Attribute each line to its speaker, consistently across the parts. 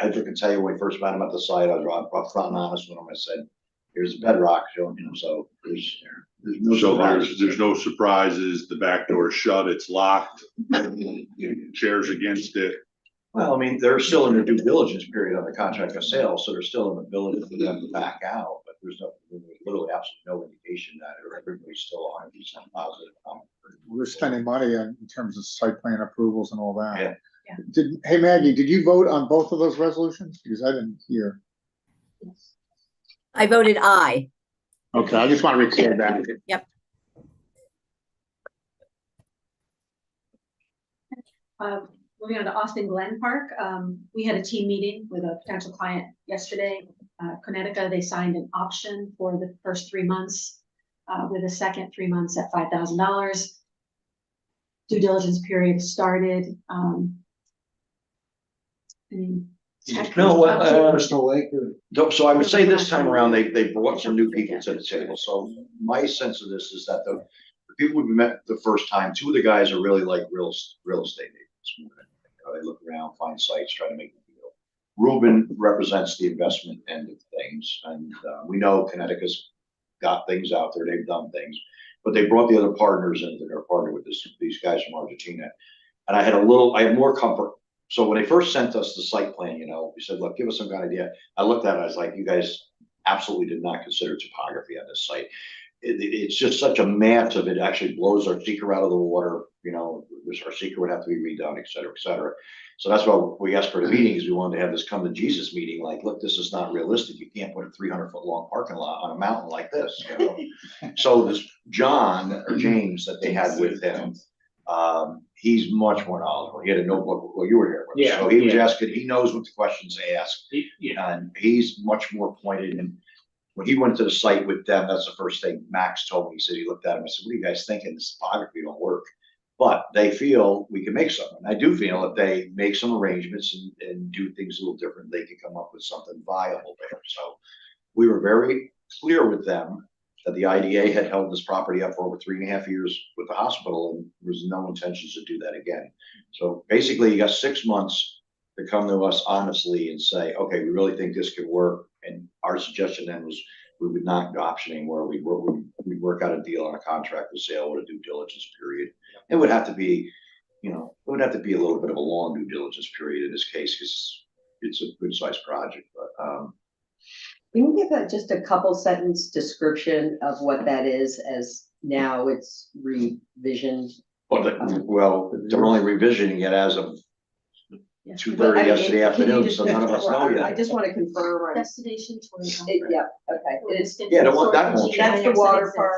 Speaker 1: manager can tell you when we first met him at the site, I was right, up front and honest with him, I said, here's the bedrock, you know, so there's, there's no.
Speaker 2: So there's, there's no surprises, the back door's shut, it's locked, chairs against it.
Speaker 1: Well, I mean, they're still in their due diligence period on the contract of sale, so they're still in the ability for them to back out, but there's no, literally absolutely no indication that everybody's still on these positive. um,
Speaker 3: We're spending money on- in terms of site plan approvals and all that.
Speaker 1: Yeah.
Speaker 4: Yeah.
Speaker 3: Did, hey Maggie, did you vote on both of those resolutions? Because I didn't hear.
Speaker 5: I voted aye.
Speaker 3: Okay, I just want to record that.
Speaker 4: Uh, moving on to Austin Glen Park, um, we had a team meeting with a potential client yesterday. Uh, Connecticut, they signed an option for the first three months, uh, with a second three months at five thousand dollars. Due diligence period started, um. I mean, tech-
Speaker 1: No, well, uh, Though- So I would say this time
Speaker 4: Mhm.
Speaker 1: around, they, they brought some new people to the table, so my sense of this is that the, the people we met the first time, two of the guys are really like real, es- real estate agents. You know, They look around, find sites, try to make a deal. Ruben represents the investment end of things, and, uh, we know Connecticut's got things out there, they've done things. But they brought the other partners in, they're partnered with this, these guys from Argentina. And I had a little, I had more comfort. So when they first sent us the site plan, you know, we said, look, give us some kind of idea. I looked at it, I was like, you guys absolutely did not consider topography on this site. It, it- it's just such a mass of it actually blows our seeker out of the water, you know, this- our seeker would have to be redone, et cetera, et cetera. So that's why we asked for the meetings, we wanted to have this come to Jesus meeting, like, look, this is not realistic, you can't put a three hundred foot long parking lot on a mountain like this, you know? So this John or James that they had with him, um, he's much more knowledgeable, he had a notebook, well, you were here. with us.
Speaker 6: Yeah,
Speaker 1: So he was
Speaker 6: yeah.
Speaker 1: asking, he knows what the questions they ask,
Speaker 6: Yeah,
Speaker 1: and he's much more pointed and when he went to the site with them, that's the first thing Max told me. He said, he looked at him and said, what are you guys thinking? This topography don't work. But they feel we can make something. I do feel if they make some arrangements and, and do things a little different, they can come up with something viable there. So we were very clear with them that the IDA had held this property up for over three and a half years with the hospital and there was no intentions to do that again. So basically you got six months to come to us honestly and say, okay, we really think this could work. And our suggestion then was, we would not do option anywhere. We work, we work out a deal on a contract with sale with a due diligence period. It would have to be, you know, it would have to be a little bit of a long due diligence period in this case, because it's a good sized project, but, um,
Speaker 7: Can you give a, just a couple sentence description of what that is as now it's revision?
Speaker 1: but, the- well, they're only revisioning it as of
Speaker 4: Yeah.
Speaker 1: two
Speaker 7: But I
Speaker 1: thirty
Speaker 7: mean,
Speaker 1: yesterday
Speaker 7: can you
Speaker 1: afternoon,
Speaker 7: just-
Speaker 1: so none of us know
Speaker 7: I
Speaker 1: yet.
Speaker 7: just want to confirm, on-
Speaker 4: Destination tourism.
Speaker 7: it- yeah, okay, it is,
Speaker 1: Yeah, the one- that one.
Speaker 7: That's the water park.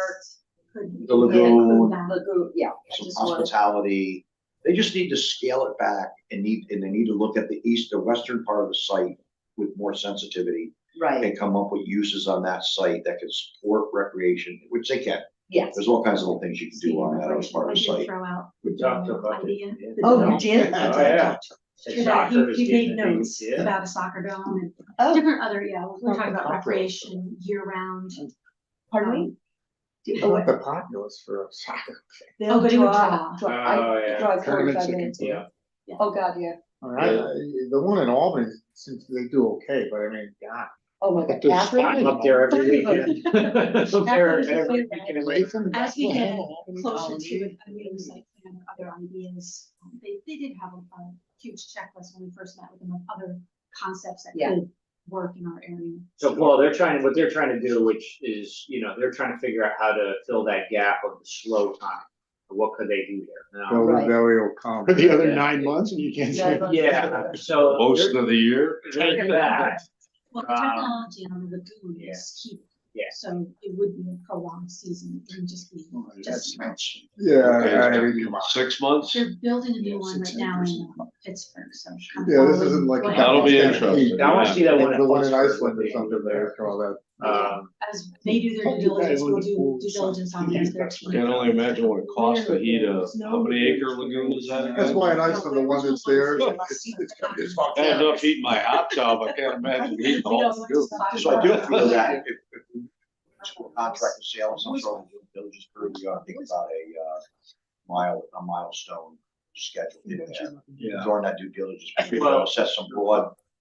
Speaker 4: Could-
Speaker 1: The
Speaker 4: could include
Speaker 1: lagoon.
Speaker 4: that.
Speaker 7: lagoon, yeah, I
Speaker 1: some
Speaker 7: just wanted-
Speaker 1: hospitality. They just need to scale it back and need, and they need to look at the east, the western part of the site with more sensitivity
Speaker 7: right,
Speaker 1: and come up with uses on that site that can support recreation, which they can.
Speaker 7: yes.
Speaker 1: There's all kinds of little things you can do on that other part of the
Speaker 4: Like
Speaker 1: site.
Speaker 4: you Throw out.
Speaker 6: We talked about it,
Speaker 4: idea,
Speaker 6: yeah.
Speaker 4: the
Speaker 7: Oh,
Speaker 4: dome.
Speaker 7: you did?
Speaker 3: Oh,
Speaker 6: yeah.
Speaker 4: He
Speaker 6: The soccer is
Speaker 4: he made
Speaker 6: getting a big-
Speaker 4: notes
Speaker 6: yeah.
Speaker 4: about a soccer dome and
Speaker 7: Oh,
Speaker 4: different other, yeah, we talked about recreation year round.
Speaker 7: pardon me? Oh,
Speaker 3: Not
Speaker 7: what-
Speaker 3: the populace for soccer.
Speaker 4: Oh, but it would draw.
Speaker 7: Draw-
Speaker 1: Uh,
Speaker 7: I
Speaker 6: Oh, yeah.
Speaker 7: draw
Speaker 3: Tournaments
Speaker 7: forty-five
Speaker 3: that
Speaker 7: minutes.
Speaker 3: can-
Speaker 6: Yeah.
Speaker 7: Oh, God, yeah,
Speaker 3: All right, I- the one in Albany, since they do okay, but I mean, God.
Speaker 7: oh my
Speaker 3: But
Speaker 7: God.
Speaker 3: there's
Speaker 7: Catherine?
Speaker 3: five up there every
Speaker 7: weekend.
Speaker 6: Up there every weekend.
Speaker 4: As we get closer to
Speaker 3: it.
Speaker 4: it, I mean, it was like, you know, other ideas, Um, they, they did have a, a huge checklist when we first met with them of other concepts that
Speaker 7: Yeah.
Speaker 4: could work in our area.
Speaker 6: So Paul, they're trying, what they're trying to do, which is, you know, they're trying to figure out how to fill that gap of the slow time. What could they do there? Now-
Speaker 3: Build a
Speaker 7: Right.
Speaker 3: burial comp.
Speaker 8: For the other
Speaker 6: Yeah.
Speaker 8: nine months and you can't say,
Speaker 7: Yeah.
Speaker 6: Yeah, so.
Speaker 2: Most
Speaker 6: they're-
Speaker 2: of the year,
Speaker 6: they're that,
Speaker 4: Well, the
Speaker 6: Um,
Speaker 4: technology on the lagoon
Speaker 6: yeah.
Speaker 4: is key,
Speaker 6: Yeah.
Speaker 4: so it would be a prolonged season, it would just be, just,
Speaker 3: Yeah,
Speaker 2: Okay, it's
Speaker 3: I
Speaker 2: gonna
Speaker 3: mean, come on.
Speaker 2: six months,
Speaker 4: they're building a new one right
Speaker 8: Six
Speaker 4: now
Speaker 8: acres.
Speaker 4: in Pittsburgh, so.
Speaker 3: Yeah, this isn't like.
Speaker 4: Well,
Speaker 2: That'll be
Speaker 3: Yeah.
Speaker 2: interesting.
Speaker 6: I wanna see that one.
Speaker 3: The one in
Speaker 6: Buster,
Speaker 3: Iceland
Speaker 6: what
Speaker 3: or
Speaker 6: they do
Speaker 3: something, they
Speaker 6: there.
Speaker 3: after all that.
Speaker 6: Um,
Speaker 4: As they do their
Speaker 8: Hope
Speaker 4: due
Speaker 8: you guys
Speaker 4: diligence, we'll
Speaker 8: would've
Speaker 4: do
Speaker 8: pulled
Speaker 4: due
Speaker 8: some
Speaker 4: diligence on
Speaker 8: heat
Speaker 4: these
Speaker 8: back
Speaker 4: thirteen.
Speaker 8: there.
Speaker 2: can only imagine what it costs to heat a, how many acre lagoon is that
Speaker 3: That's
Speaker 2: again?
Speaker 3: why in Iceland, the one that's there, it's, it's it's fucked
Speaker 2: I
Speaker 3: up.
Speaker 2: end up eating my hot tub, I can't imagine eating the whole lagoon.
Speaker 1: So I do feel that if, if we contract the sale, of some sort of due diligence period, we ought to think about a, uh, mile, a milestone schedule.
Speaker 2: Yeah.
Speaker 1: During that due diligence, period,
Speaker 6: Well-
Speaker 1: set some broad